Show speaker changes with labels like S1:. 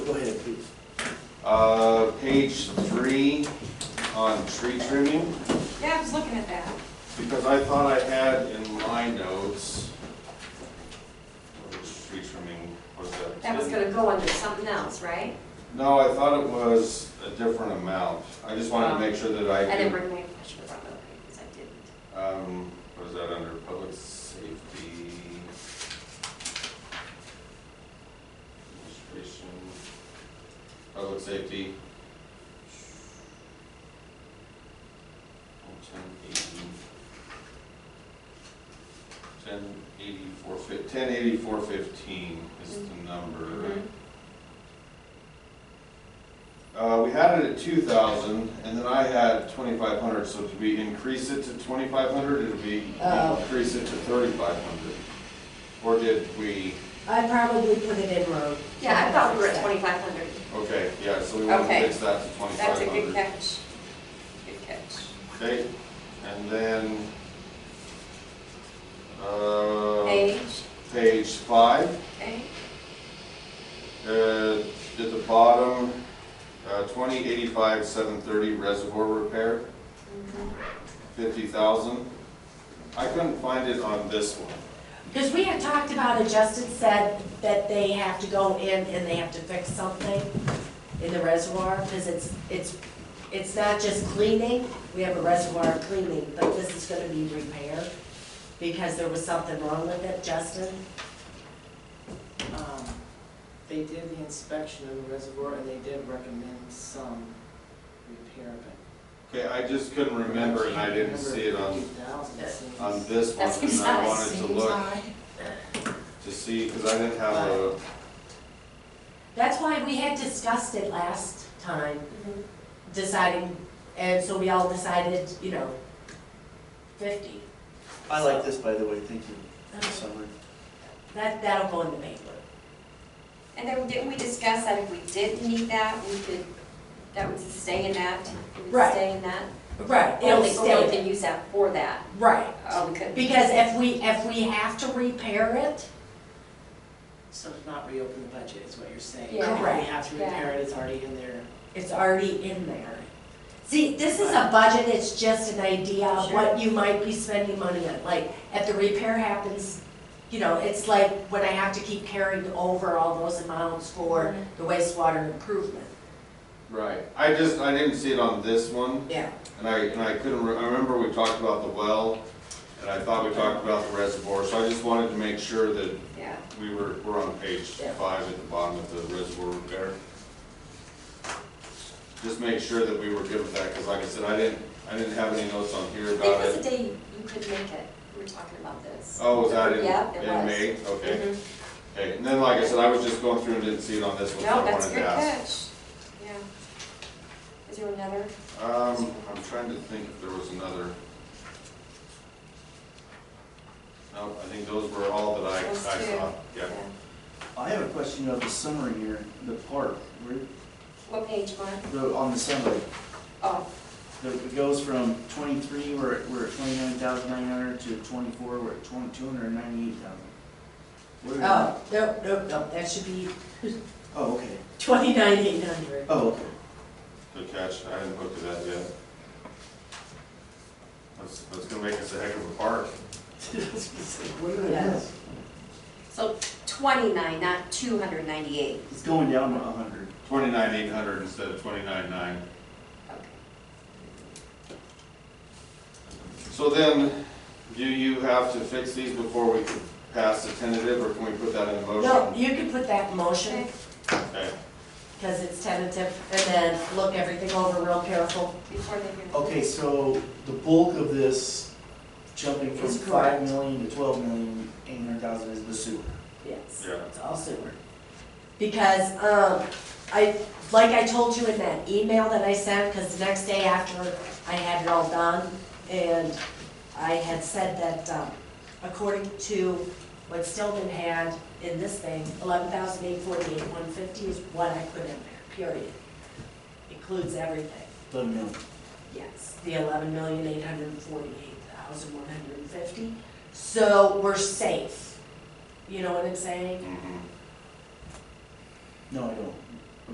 S1: Uh, page three on tree trimming,
S2: Yeah, I was looking at that.
S1: because I thought I had in my notes, which tree trimming was that?
S2: That was
S1: in?
S2: gonna go under something else, right?
S1: No, I thought it was a different amount. I just wanted to make sure that I
S2: Oh. I didn't
S1: could,
S2: bring my, I should've brought my papers, I didn't.
S1: um, was that under public safety? Administration, public safety. Oh, Ten eighty. Ten eighty-four fif, ten eighty-four fifteen is the number.
S2: Mhm.
S1: Uh, we had it at two thousand, and then I had twenty-five hundred, so did we increase it to twenty-five hundred, did we
S3: Oh.
S1: increase it to thirty-five hundred? Or did we,
S3: I probably put it in road.
S2: Yeah, I thought we were at twenty-five hundred.
S1: okay, yeah, so we want to
S2: Okay.
S1: fix that to
S2: That's a
S1: twenty-five
S2: good
S1: hundred.
S2: catch. Good catch.
S1: Okay, and then,
S2: Um,
S1: uh,
S2: Age,
S1: page five,
S2: okay,
S1: uh, at the bottom, uh, twenty eighty-five, seven thirty reservoir repair.
S2: mm-hmm.
S1: fifty thousand. I couldn't find it on this one.
S3: Because we had talked about it, Justin said that they have to go in and they have to fix something in the reservoir, because it's, it's, it's not just cleaning, we have a reservoir cleaning, but this is gonna be repaired, because there was something wrong with it, Justin.
S4: Um, They did the inspection of the reservoir and they did recommend some repair, but.
S1: Okay, I just couldn't remember and I didn't see it on, on
S4: on.
S1: this one.
S2: That's
S1: And I wanted to
S3: Seems
S1: look
S3: odd.
S1: to see, because I didn't have a,
S3: That's why we had discussed it last time, deciding, and so we all decided, you know, fifty.
S5: I like this, by the way, thank you, Summer.
S3: That, that'll go in the paper.
S2: And then didn't we discuss that if we did need that, we could, that would stay in that? It would
S3: Right.
S2: Stay in that?
S3: Right,
S2: Or
S3: it'll
S2: we- Or we
S3: stay,
S2: can use that for that,
S3: Oh, right.
S2: or we could.
S3: Because if we, if we have to repair it,
S4: So to not reopen the budget is what you're saying.
S2: Yeah.
S4: We have to repair it, it's already in there.
S3: it's already in there. See, this is a budget, it's just an idea of what you might be spending money on. Like, if the repair happens, you know, it's like when I have to keep carrying over all those amounts for the wastewater improvement.
S1: right. I just, I didn't see it on this one
S3: Yeah.
S1: and I, and I couldn't, re- I remember we talked about the well and I thought we talked about the reservoir, so I just wanted to make sure that
S2: Yeah.
S1: we were, we're on page
S3: Yeah.
S1: five at the bottom of the reservoir repair. Just make sure that we were good with that, because like I said, I didn't, I didn't have any notes on here
S2: It
S1: about it.
S2: was a day you could make it, we were talking about this.
S1: Oh, was that in,
S2: Yeah, it
S1: in
S2: was.
S1: May? Okay.
S2: Mhm.
S1: Okay, and then like I said, I was just going through and didn't see it on this one, so
S2: No,
S1: I
S2: that's a
S1: wanted
S2: good
S1: to ask.
S2: catch, yeah. Is there another?
S1: Um, I'm trying to think if there was another. No, I think those were all that I, I
S2: Those two.
S1: saw, yeah.
S5: I have a question of the summary here, the park, where,
S2: What page, Mark?
S5: the- on the summary.
S2: Oh,
S5: The- It goes from twenty-three, we're, at- we're at twenty-nine thousand nine hundred, to twenty-four, we're at twenty, two hundred and ninety-eight thousand. Mm-hmm.
S3: Oh, no, no, no, that should be
S5: Oh, okay,
S3: twenty-nine, eight hundred.
S5: oh, okay.
S1: Good catch, I hadn't looked at that yet. That's, that's gonna make us a heck of a park.
S5: What did I
S3: Yes.
S2: so twenty-nine, not two hundred ninety-eight.
S5: It's going down a hundred.
S1: Twenty-nine eight hundred instead of twenty-nine nine.
S2: Okay.
S1: So then, do you have to fix these before we can pass the tentative, or can we put that in a motion?
S3: No, you can put that in motion,
S2: Okay,
S1: Okay.
S3: because it's tentative, and then look everything over real careful.
S2: Before they hear.
S5: Okay, so the bulk of this jumping from
S3: Is
S5: five
S3: correct.
S5: million to twelve million, eight hundred thousand is the sewer.
S3: Yes.
S1: Yeah.
S3: It's all sewer. Because, um, I, like I told you in that email that I sent, because the next day after I had it all done, and I had said that, um, according to what Stillman had in this thing, eleven thousand eight forty-eight, one fifty is what I put in there, period. Includes everything.
S5: The mill.
S3: Yes, the eleven million eight hundred and forty-eight thousand one hundred and fifty. So we're
S1: Mm-hmm.
S3: safe. You know what I'm saying?
S1: Mhm.
S5: No, I don't.